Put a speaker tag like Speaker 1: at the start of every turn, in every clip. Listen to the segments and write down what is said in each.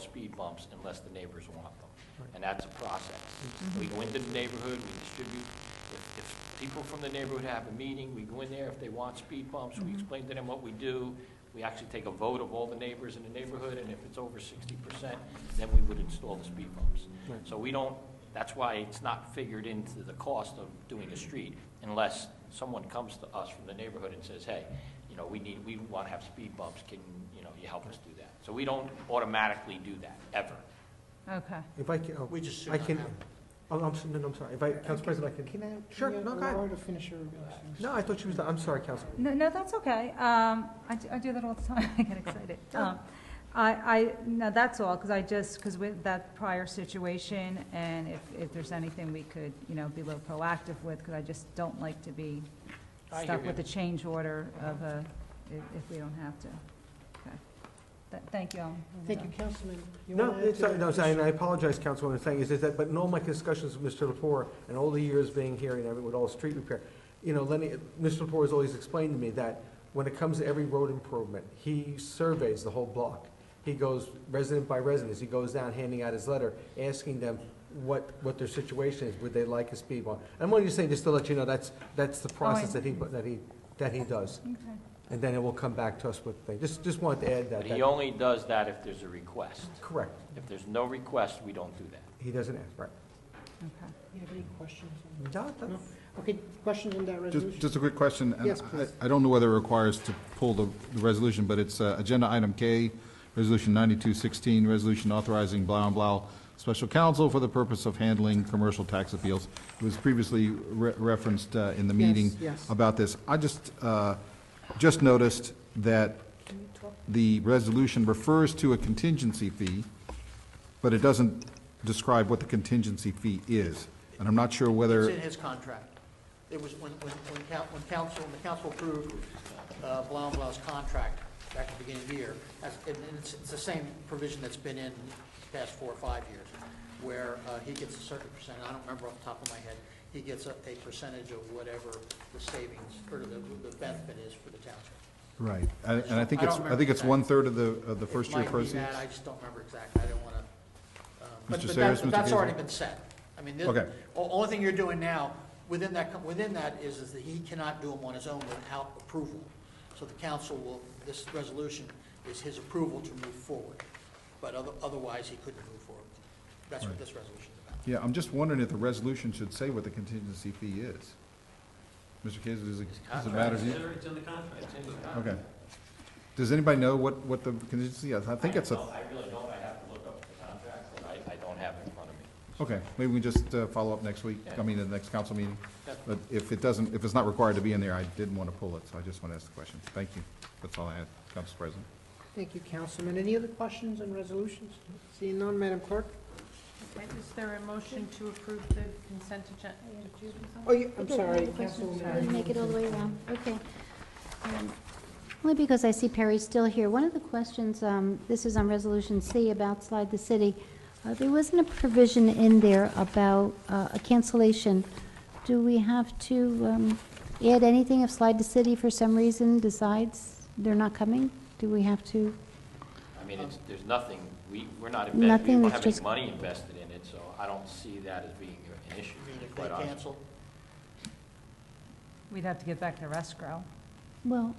Speaker 1: speed bumps unless the neighbors want them. And that's a process. We go into the neighborhood, we distribute, if, if people from the neighborhood have a meeting, we go in there, if they want speed bumps, we explain to them what we do. We actually take a vote of all the neighbors in the neighborhood, and if it's over sixty percent, then we would install the speed bumps.
Speaker 2: Right.
Speaker 1: So we don't, that's why it's not figured into the cost of doing a street unless someone comes to us from the neighborhood and says, hey, you know, we need, we want to have speed bumps, can, you know, you help us do that? So we don't automatically do that, ever.
Speaker 3: Okay.
Speaker 2: If I can, oh,
Speaker 4: We just should
Speaker 2: I
Speaker 4: not
Speaker 2: can,
Speaker 4: have-
Speaker 2: oh, I'm, s- no, no, I'm sorry, if I, Council President, I can,
Speaker 5: Can I?
Speaker 2: Sure,
Speaker 5: can you
Speaker 2: no, go ahead.
Speaker 5: allow her to finish her remarks?
Speaker 2: no, I thought she was, the- I'm sorry, Council.
Speaker 3: No, no, that's okay. Um, I, do- I do that all the time. I get excited. Um, I, I, no, that's all, because I just, because with that prior situation, and if, if there's anything we could, you know, be a little proactive with, because I just don't like to be
Speaker 1: I
Speaker 3: stuck
Speaker 1: hear
Speaker 3: with
Speaker 1: you.
Speaker 3: a change order of a, if, if we don't have to. Okay. Th- Thank you, Ellen.
Speaker 5: Thank you, Councilman. You
Speaker 2: No,
Speaker 5: wanna add
Speaker 2: it's,
Speaker 5: to
Speaker 2: uh, no,
Speaker 5: that?
Speaker 2: so- and I apologize, Councilwoman, for saying is, is that, but in all my discussions with Mr. Lepore, and all the years being here and every, with all the street repair, you know, Lenny, Mr. Lepore has always explained to me that when it comes to every road improvement, he surveys the whole block. He goes resident by resident, he goes down handing out his letter, asking them what, what their situation is, would they like a speed bump? I'm only just saying, just to let you know, that's, that's the
Speaker 5: Oh,
Speaker 2: process that he, that he, that he does.
Speaker 3: Okay.
Speaker 2: And then it will come back to us with, things. just, just wanted to add that.
Speaker 1: But he
Speaker 2: that-
Speaker 1: only does that if there's a request.
Speaker 2: Correct,
Speaker 1: If there's no request, we don't do that.
Speaker 2: he doesn't ask, right.
Speaker 3: Okay.
Speaker 5: You have any questions? on that?
Speaker 2: No, that's-
Speaker 5: No? Okay, questions on that
Speaker 6: Just,
Speaker 5: resolution?
Speaker 6: just a quick question. and
Speaker 5: Yes, please.
Speaker 6: I I don't know whether it requires to pull the, the resolution, but it's uh, Agenda Item K, Resolution 9216, Resolution authorizing blah and blah special counsel for the purpose of handling commercial tax appeals. It was previously re- referenced uh, in the meeting
Speaker 5: yes.
Speaker 6: about this. I just, uh, just noticed that the resolution refers to a contingency fee, but it doesn't describe what the contingency fee is. And I'm not sure whether.
Speaker 4: It's in his contract. It was when, when, when coun- when council, when the council approved uh, Blau and Blau's contract back at the beginning of the year, that's, and and it's, it's the same provision that's been in the past four or five years, where uh, he gets a certain percent, I don't remember off the top of my head, he gets a, a percentage of whatever the savings, or the, the benefit is for the township.
Speaker 6: Right, and and I think
Speaker 4: I
Speaker 6: it's,
Speaker 4: don't
Speaker 6: I think it's
Speaker 4: remember
Speaker 6: one-third of the, of the
Speaker 4: It
Speaker 6: first year
Speaker 4: might be
Speaker 6: proceeds?
Speaker 4: that, I just don't remember exactly, I don't want to.
Speaker 6: Mr.
Speaker 4: But
Speaker 6: Sayers,
Speaker 4: that-
Speaker 6: Mr.
Speaker 4: but that's
Speaker 6: Gaisler?
Speaker 4: already been set. I mean, the
Speaker 6: Okay.
Speaker 4: o- only thing you're doing now, within that, co- within that is, is that he cannot do them on his own without approval. So the council will, this resolution is his approval to move forward, but other- otherwise he couldn't move forward. That's what
Speaker 6: Right.
Speaker 4: this resolution is about.
Speaker 6: Yeah, I'm just wondering if the resolution should say what the contingency fee is. Mr. Kizer, does it, does it matter to you?
Speaker 7: It's in the contract.
Speaker 6: Okay. Does anybody know what, what the contingency, is? I think it's
Speaker 1: No,
Speaker 6: a,
Speaker 1: I really don't, I have to look up the contract, but I, I don't have it in front of me.
Speaker 6: okay, maybe we just uh, follow up next week, I mean, at the next council meeting. But if it doesn't, if it's not required to be in there, I didn't want to pull it, so I just want to ask the question. Thank you. That's all I had, Council President.
Speaker 5: Thank you, Councilman. Any other questions on resolutions? Seeing none, Madam Clerk?
Speaker 8: Is there a motion to approve the consent agenda?
Speaker 5: Oh, you, I'm
Speaker 9: Okay,
Speaker 5: sorry,
Speaker 9: another question. Let me
Speaker 5: Councilwoman.
Speaker 9: Make it all the way around, okay. Um, Only because I see Perry's still here. One of the questions, um, this is on Resolution C about Slide the City. Uh, There wasn't a provision in there about uh, a cancellation. Do we have to um, add anything if Slide the City for some reason decides they're not coming? Do we have to?
Speaker 1: I mean, it's, there's nothing, we, we're not invested, we
Speaker 9: Nothing
Speaker 1: don't
Speaker 9: that's
Speaker 1: have any
Speaker 9: just-
Speaker 1: money invested in it, so I don't see that as being an issue,
Speaker 4: I mean, if they
Speaker 1: quite honestly.
Speaker 4: cancel,
Speaker 3: We'd have to get back to escrow.
Speaker 9: Well,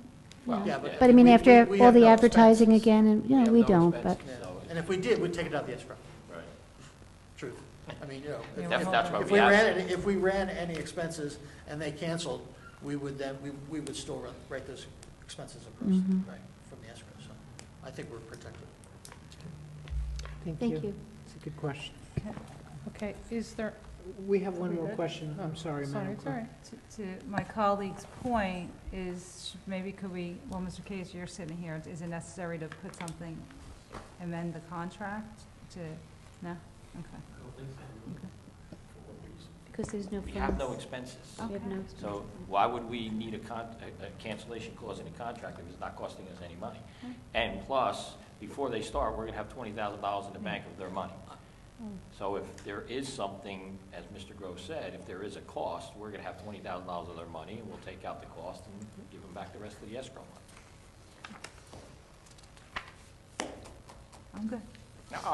Speaker 1: Well,
Speaker 9: yeah.
Speaker 4: yeah, but.
Speaker 9: But I mean,
Speaker 4: we-
Speaker 9: after
Speaker 4: we- we
Speaker 9: all
Speaker 4: have
Speaker 9: the
Speaker 4: no
Speaker 9: advertising
Speaker 4: expenses.
Speaker 9: again, and, you know,
Speaker 1: have
Speaker 9: we
Speaker 1: no
Speaker 9: don't, but.
Speaker 1: expenses.
Speaker 4: Yeah.
Speaker 1: So it's-
Speaker 4: And if we did, we'd take it out of the escrow,
Speaker 1: Right.
Speaker 4: truth. I mean, you know. if-
Speaker 3: Yeah,
Speaker 1: That's, that's why
Speaker 4: If
Speaker 1: we
Speaker 4: we
Speaker 1: asked.
Speaker 4: ran, if we ran any expenses and they canceled, we would then, we, we would still run, write those expenses in person, right, from the escrow, so I think we're protected.
Speaker 9: Thank you.
Speaker 5: It's a good question.
Speaker 8: Okay, is there,
Speaker 5: We have one
Speaker 8: We
Speaker 5: more
Speaker 8: good?
Speaker 5: question. I'm sorry,
Speaker 8: sorry,
Speaker 5: Madam
Speaker 8: it's all
Speaker 5: Clerk.
Speaker 8: right.
Speaker 3: To- To my colleague's point is, maybe could we, well, Mr. Case, you're sitting here, is it necessary to put something, amend the contract to, no? Okay.
Speaker 9: Because there's no
Speaker 1: We have no
Speaker 9: funds.
Speaker 1: expenses.
Speaker 9: We have no
Speaker 3: Okay.
Speaker 9: expenses.
Speaker 1: So why would we need a con, a a cancellation clause in a contract if it's not costing us any money? And plus, before they start, we're gonna have twenty thousand dollars in the bank of their money. So if there is something, as Mr. Grove said, if there is a cost, we're gonna have twenty thousand dollars of their money, and we'll take out the cost and give them back the rest of the escrow money.
Speaker 3: I'm good.